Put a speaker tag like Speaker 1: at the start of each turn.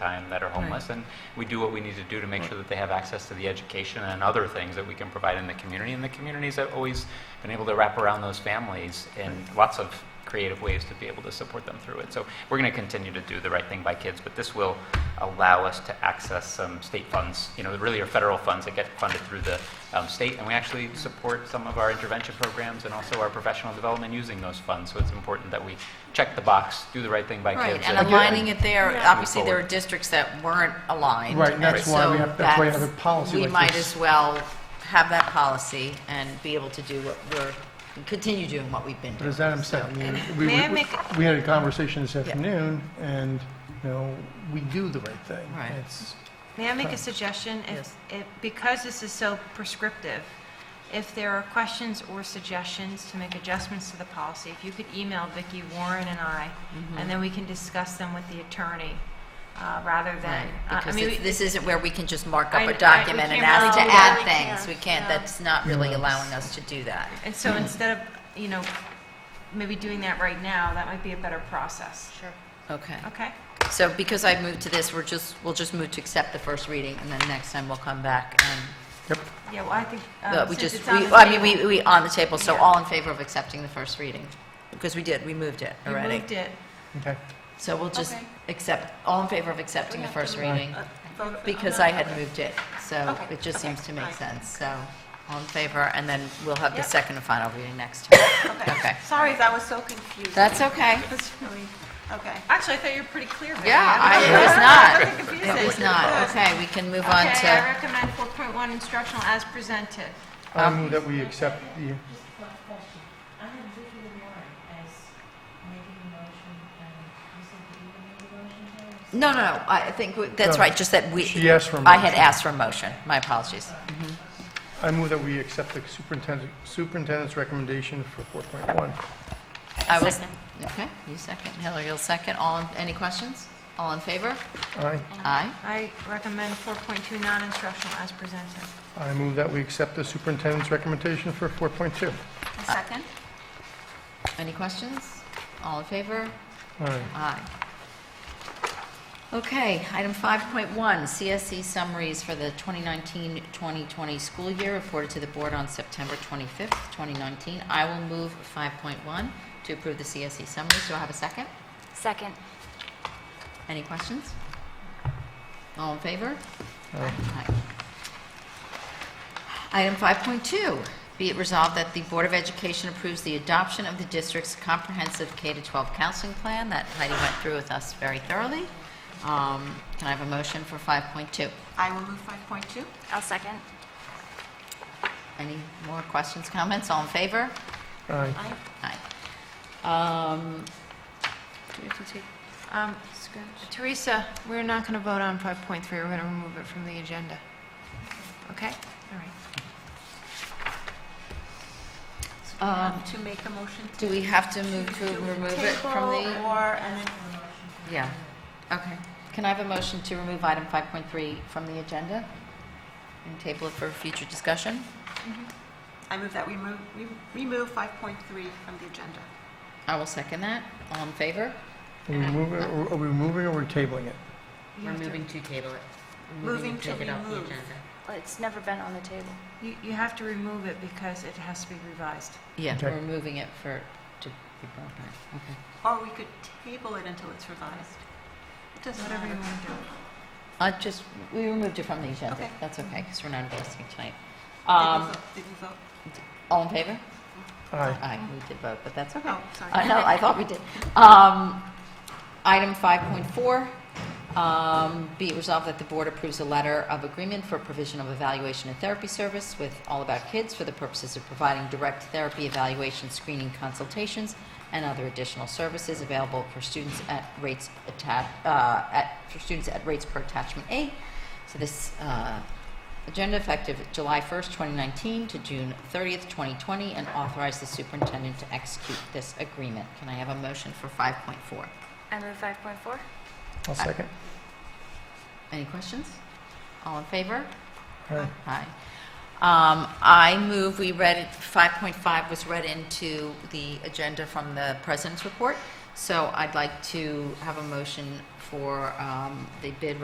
Speaker 1: time that are homeless, and we do what we need to do to make sure that they have access to the education and other things that we can provide in the community. And the communities have always been able to wrap around those families in lots of creative ways to be able to support them through it. So we're going to continue to do the right thing by kids, but this will allow us to access some state funds, you know, that really are federal funds that get funded through the um, state, and we actually support some of our intervention programs and also our professional development using those funds. So it's important that we check the box, do the right thing by
Speaker 2: Right,
Speaker 1: kids.
Speaker 2: and aligning it there,
Speaker 3: Yeah.
Speaker 2: obviously, there are districts that weren't aligned.
Speaker 4: Right, and that's why
Speaker 2: so
Speaker 4: we have- that's why you have a policy
Speaker 2: We
Speaker 4: like
Speaker 2: might
Speaker 4: this.
Speaker 2: as well have that policy and be able to do what we're, continue doing what we've been
Speaker 4: But
Speaker 2: doing.
Speaker 4: as Adam said, I mean, we,
Speaker 3: May I
Speaker 4: we,
Speaker 3: make-
Speaker 4: we had a conversation this
Speaker 2: Yeah.
Speaker 4: afternoon, and, you know, we do the right thing.
Speaker 2: Right.
Speaker 4: It's,
Speaker 3: May I make a suggestion? If-
Speaker 2: Yes.
Speaker 3: if- Because this is so prescriptive, if there are questions or suggestions to make adjustments to the policy, if you could email Vicki Warren and I,
Speaker 2: Mm-hmm.
Speaker 3: and then we can discuss them with the attorney, uh, rather
Speaker 2: Right,
Speaker 3: than, uh, I
Speaker 2: because
Speaker 3: mean,
Speaker 2: it's-
Speaker 3: we-
Speaker 2: this isn't where we can just mark
Speaker 3: I-
Speaker 2: up
Speaker 3: I-
Speaker 2: a
Speaker 3: we
Speaker 2: document and
Speaker 3: can't
Speaker 2: ask to
Speaker 3: really-
Speaker 2: add
Speaker 5: we
Speaker 2: things. We
Speaker 5: can't,
Speaker 2: can't,
Speaker 5: yeah.
Speaker 2: that's not really allowing us to do that.
Speaker 3: and so instead of, you know, maybe doing that right now, that might be a better process,
Speaker 5: Sure.
Speaker 2: Okay.
Speaker 3: okay?
Speaker 2: So because I've moved to this, we're just, we'll just move to accept the first reading, and then next time we'll come back and,
Speaker 4: yep,
Speaker 3: Yeah, well, I think, um,
Speaker 2: but we
Speaker 3: since
Speaker 2: just,
Speaker 3: it's
Speaker 2: we-
Speaker 3: on the
Speaker 2: I mean,
Speaker 3: table-
Speaker 2: we, we, on the table, so
Speaker 3: Yeah.
Speaker 2: all in favor of accepting the first reading? Because we did, we moved it
Speaker 3: You
Speaker 2: already.
Speaker 3: moved it.
Speaker 4: okay.
Speaker 2: So we'll just
Speaker 3: Okay.
Speaker 2: accept, all in favor of accepting the first reading?
Speaker 3: Uh, vote-
Speaker 2: Because
Speaker 3: I'm
Speaker 2: I
Speaker 3: not-
Speaker 2: had moved it, so
Speaker 3: Okay,
Speaker 2: it just
Speaker 3: okay,
Speaker 2: seems to make
Speaker 3: fine.
Speaker 2: sense, so all in favor, and then we'll have the
Speaker 3: Yep.
Speaker 2: second and final reading next time. Okay.
Speaker 5: Okay. Sorry if that was so confusing.
Speaker 2: That's okay.
Speaker 5: That's really, okay.
Speaker 3: Actually, I thought you were pretty clear. Vicky.
Speaker 2: Yeah, I,
Speaker 3: mean,
Speaker 2: it was not.
Speaker 3: That's confusing.
Speaker 2: It was not. Okay, we can move on
Speaker 3: Okay, I
Speaker 2: to,
Speaker 3: recommend 4.1 instructional as presented.
Speaker 4: I move that we accept the,
Speaker 6: Just one question. I have Vicky Warren as making the motion, and you said that you were making the motion, Terry?
Speaker 2: no, no, no, I think, we- that's
Speaker 4: No.
Speaker 2: right, just that we,
Speaker 4: She asked for a
Speaker 2: I had
Speaker 4: motion.
Speaker 2: asked for a motion, my apologies.
Speaker 4: I move that we accept the superintendent, superintendent's recommendation for 4.1.
Speaker 2: I was, okay, you second, Hillary, you'll second, all, in- any questions? All in favor?
Speaker 4: Aye.
Speaker 2: Aye.
Speaker 3: I recommend 4.2 non-instructional as presented.
Speaker 4: I move that we accept the superintendent's recommendation for 4.2.
Speaker 5: A second?
Speaker 2: Any questions? All in favor?
Speaker 4: Aye.
Speaker 2: Aye. Okay, item 5.1, CSE E summaries for the 2019-2020 school year reported to the board on September 25th, 2019. I will move 5.1 to approve the CSE summaries. Do I have a second?
Speaker 5: Second.
Speaker 2: Any questions? All in favor?
Speaker 4: Aye.
Speaker 2: Aye. Item 5.2, be it resolved that the Board of Education approves the adoption of the district's comprehensive K-12 counseling plan that Heidi went through with us very thoroughly. Um, Can I have a motion for 5.2?
Speaker 6: I will move 5.2.
Speaker 5: I'll second.
Speaker 2: Any more questions, comments? All in favor?
Speaker 4: Aye.
Speaker 2: Aye. Um, Do we have to take
Speaker 3: Um, Teresa, we're not going to vote on 5.3, we're going to remove it from the agenda. Okay? All right.
Speaker 2: Um,
Speaker 6: To make the motion
Speaker 2: Do we have to move to remove it from the?
Speaker 6: Table or, and then
Speaker 2: Yeah, okay. Can I have a motion to remove item 5.3 from the agenda and table it for future discussion?
Speaker 6: I move that we move, we remove 5.3 from the agenda.
Speaker 2: I will second that. All in favor?
Speaker 4: Are we moving, are we moving or we're tabling it?
Speaker 7: We're moving to table it. We're
Speaker 6: Moving to
Speaker 7: take it off the
Speaker 6: remove.
Speaker 7: agenda.
Speaker 5: Well, It's never been on the table.
Speaker 3: You you have to remove it because it has to be revised.
Speaker 2: Yeah,
Speaker 4: Okay.
Speaker 2: we're moving it for, to be brought back. Okay.
Speaker 6: Or we could table it until it's revised. It doesn't
Speaker 3: Whatever you
Speaker 6: matter.
Speaker 3: want to do.
Speaker 2: I just, we removed it from the agenda.
Speaker 6: Okay.
Speaker 2: That's okay, because we're not investing tonight.
Speaker 6: Did you
Speaker 2: Um,
Speaker 6: vote- Did you vote?
Speaker 2: All in favor?
Speaker 4: Aye.
Speaker 2: Aye, we did vote, but that's okay.
Speaker 6: Oh, sorry.
Speaker 2: Uh, No, I thought we did. Um, Item 5.4, um, be it resolved that the board approves a letter of agreement for provision of evaluation and therapy service with All About Kids for the purposes of providing direct therapy evaluation, screening consultations, and other additional services available for students at rates attached, for students at rates per attachment A. So this uh, agenda effective July 1st, 2019 to June 30th, 2020, and authorize the superintendent to execute this agreement. Can I have a motion for 5.4?
Speaker 5: I move 5.4.
Speaker 4: I'll second.
Speaker 2: Any questions? All in favor?
Speaker 4: Aye.
Speaker 2: Aye. Um, I move we read, it- 5.5 was read into the agenda from the president's report. So I'd like to have a motion for um, the bid